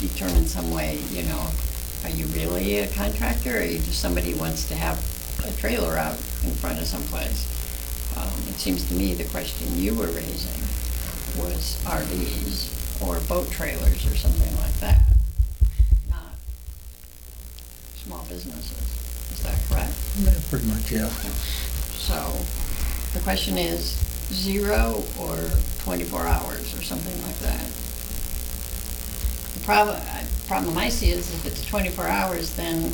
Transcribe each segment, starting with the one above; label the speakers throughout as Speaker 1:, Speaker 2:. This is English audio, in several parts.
Speaker 1: determine some way, you know, are you really a contractor, or are you just somebody who wants to have a trailer out in front of someplace? Um, It seems to me the question you were raising was RVs or boat trailers or something like that, not small businesses. Is that correct?
Speaker 2: Yeah, Pretty much, yeah.
Speaker 1: So the question is zero or 24 hours or something like that. The problem, problem I see is if it's 24 hours, then,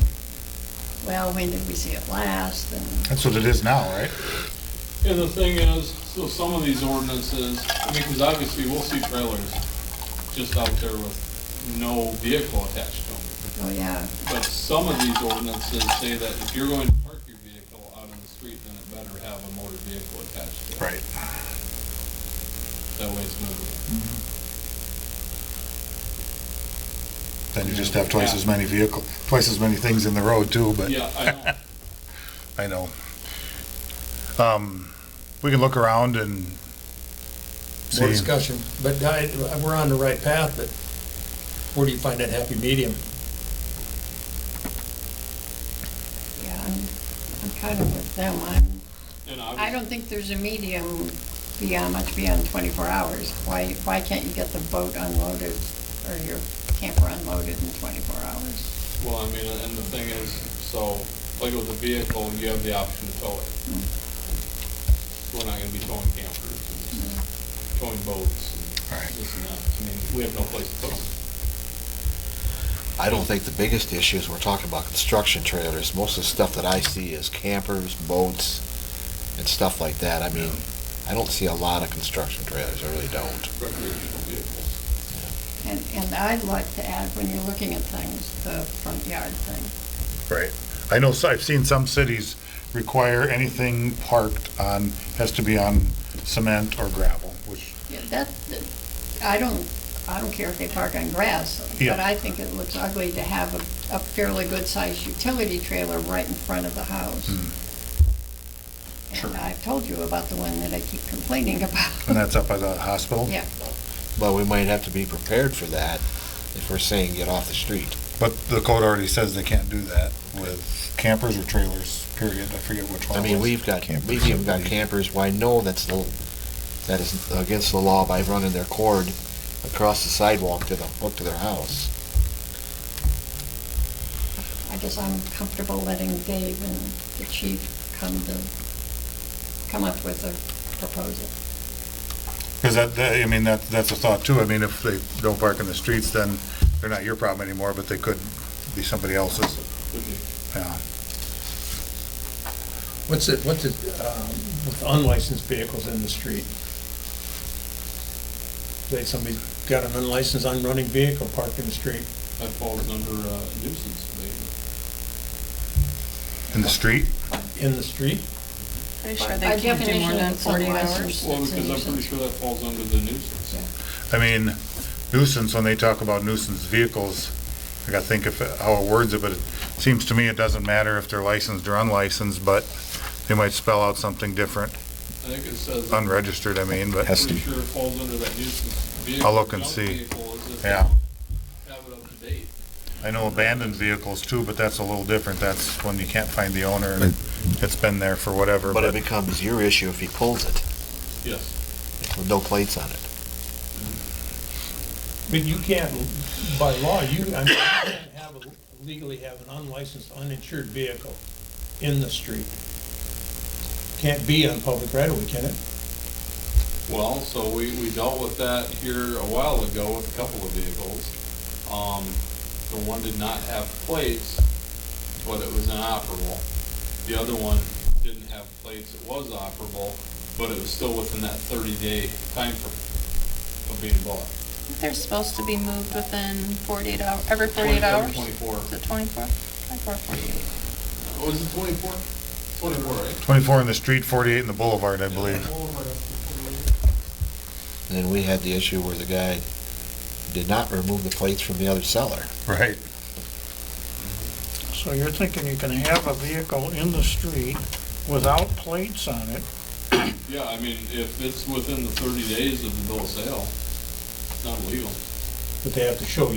Speaker 1: well, when did we see it last? And
Speaker 3: That's what it is now, right?
Speaker 4: And the thing is, so some of these ordinances, I mean, because obviously we'll see trailers just out there with no vehicle attached to them.
Speaker 1: Oh, yeah,
Speaker 4: But some of these ordinances say that if you're going to park your vehicle out on the street, then it better have a motor vehicle attached to it.
Speaker 3: Right.
Speaker 4: That way it's moving.
Speaker 3: Then you just have twice as many vehicle, twice as many things in the road too, but
Speaker 4: Yeah, I
Speaker 3: I know.
Speaker 4: know.
Speaker 3: Um, we can look around and
Speaker 2: More
Speaker 3: see.
Speaker 2: discussion, but I, we're on the right path, but where do you find that happy medium?
Speaker 1: yeah, I'm, I'm kind of with them. I'm,
Speaker 4: And
Speaker 1: I
Speaker 4: obviously,
Speaker 1: don't think there's a medium beyond, much beyond 24 hours. Why, why can't you get the boat unloaded or your camper unloaded in 24 hours?
Speaker 4: well, I mean, and the thing is, so, like with a vehicle, you have the option to tow it.
Speaker 1: Hmm.
Speaker 4: We're not gonna be towing campers and towing boats
Speaker 3: Right.
Speaker 4: and this and that. I mean, we have no place to tow them.
Speaker 5: I don't think the biggest issue is we're talking about construction trailers. Most of the stuff that I see is campers, boats, and stuff like that. I mean, I don't see a lot of construction trailers, I really don't.
Speaker 4: recreational vehicles.
Speaker 1: And, and I'd like to add, when you're looking at things, the front yard thing.
Speaker 3: Right. I know, so- I've seen some cities require anything parked on, has to be on cement or gravel, which,
Speaker 1: Yeah, that, that- I don't, I don't care if they park on grass, but
Speaker 3: Yeah.
Speaker 1: I think it looks ugly to have a, a fairly good-sized utility trailer right in front of the house.
Speaker 3: Hmm. Sure.
Speaker 1: And I've told you about the one that I keep complaining
Speaker 3: and
Speaker 1: about.
Speaker 3: that's up by the hospital.
Speaker 1: Yeah,
Speaker 5: But we might have to be prepared for that if we're saying get off the street.
Speaker 3: But the code already says they can't do that with campers or trailers, period. I forget which one.
Speaker 5: I
Speaker 3: it
Speaker 5: mean,
Speaker 3: was.
Speaker 5: we've got, we've even got campers, well, I know that's the, that is against the law by running their cord across the sidewalk to the, up to their house.
Speaker 1: I guess I'm comfortable letting Dave and the chief come to, come up with a proposal.
Speaker 3: Because that, that- I mean, that, that's a thought too. I mean, if they don't park in the streets, then they're not your problem anymore, but they could be somebody else's. uh,
Speaker 4: Could be.
Speaker 3: Yeah.
Speaker 2: What's it, what's it, um, with unlicensed vehicles in the street? Like somebody's got an unlicensed, unrunning vehicle parked in the street,
Speaker 4: That falls under uh, nuisance abatement.
Speaker 3: In the street?
Speaker 2: in the street?
Speaker 6: Pretty sure
Speaker 1: By
Speaker 6: they can't do more
Speaker 1: definition,
Speaker 6: than
Speaker 1: it's
Speaker 6: forty
Speaker 1: unlicensed.
Speaker 6: hours.
Speaker 4: Well,
Speaker 1: It's a
Speaker 4: because I'm pretty
Speaker 1: nuisance.
Speaker 4: sure that falls under the nuisance.
Speaker 3: I mean, nuisance, when they talk about nuisance vehicles, I gotta think of how it words it, but it seems to me it doesn't matter if they're licensed or unlicensed, but they might spell out something different,
Speaker 4: I think it says, I'm
Speaker 3: unregistered, I mean, but.
Speaker 4: pretty sure it falls under that nuisance vehicle.
Speaker 3: I'll look and
Speaker 4: junk
Speaker 3: see.
Speaker 4: vehicle is if they
Speaker 3: Yeah.
Speaker 4: don't Have it up to date.
Speaker 3: I know abandoned vehicles too, but that's a little different. That's when you can't find the owner and it's been there for whatever,
Speaker 5: But it
Speaker 3: but
Speaker 5: becomes your issue if he pulls it
Speaker 4: Yes.
Speaker 5: with no plates on it.
Speaker 2: But you can't, by law, you, I mean, you can't have, a- legally have an unlicensed, uninsured vehicle in the street. Can't be on public right of way, can it?
Speaker 4: Well, so we, we dealt with that here a while ago with a couple of vehicles. Um, the one did not have plates, but it was inoperable. The other one didn't have plates, it was operable, but it was still within that thirty-day timeframe of being bought.
Speaker 6: They're supposed to be moved within forty-eight hour, every forty-eight
Speaker 4: 27,
Speaker 6: hours?
Speaker 4: Twenty-four.
Speaker 6: Is it twenty-four? Twenty-four, forty-eight.
Speaker 4: Oh, is it twenty-four? Twenty-four, right?
Speaker 3: twenty-four in the street, forty-eight in the boulevard, I believe.
Speaker 5: And then we had the issue where the guy did not remove the plates from the other seller.
Speaker 3: Right.
Speaker 7: So you're thinking you can have a vehicle in the street without plates on it?
Speaker 4: Yeah, I mean, if it's within the thirty days of the bill of sale, it's not illegal.
Speaker 2: But they have to show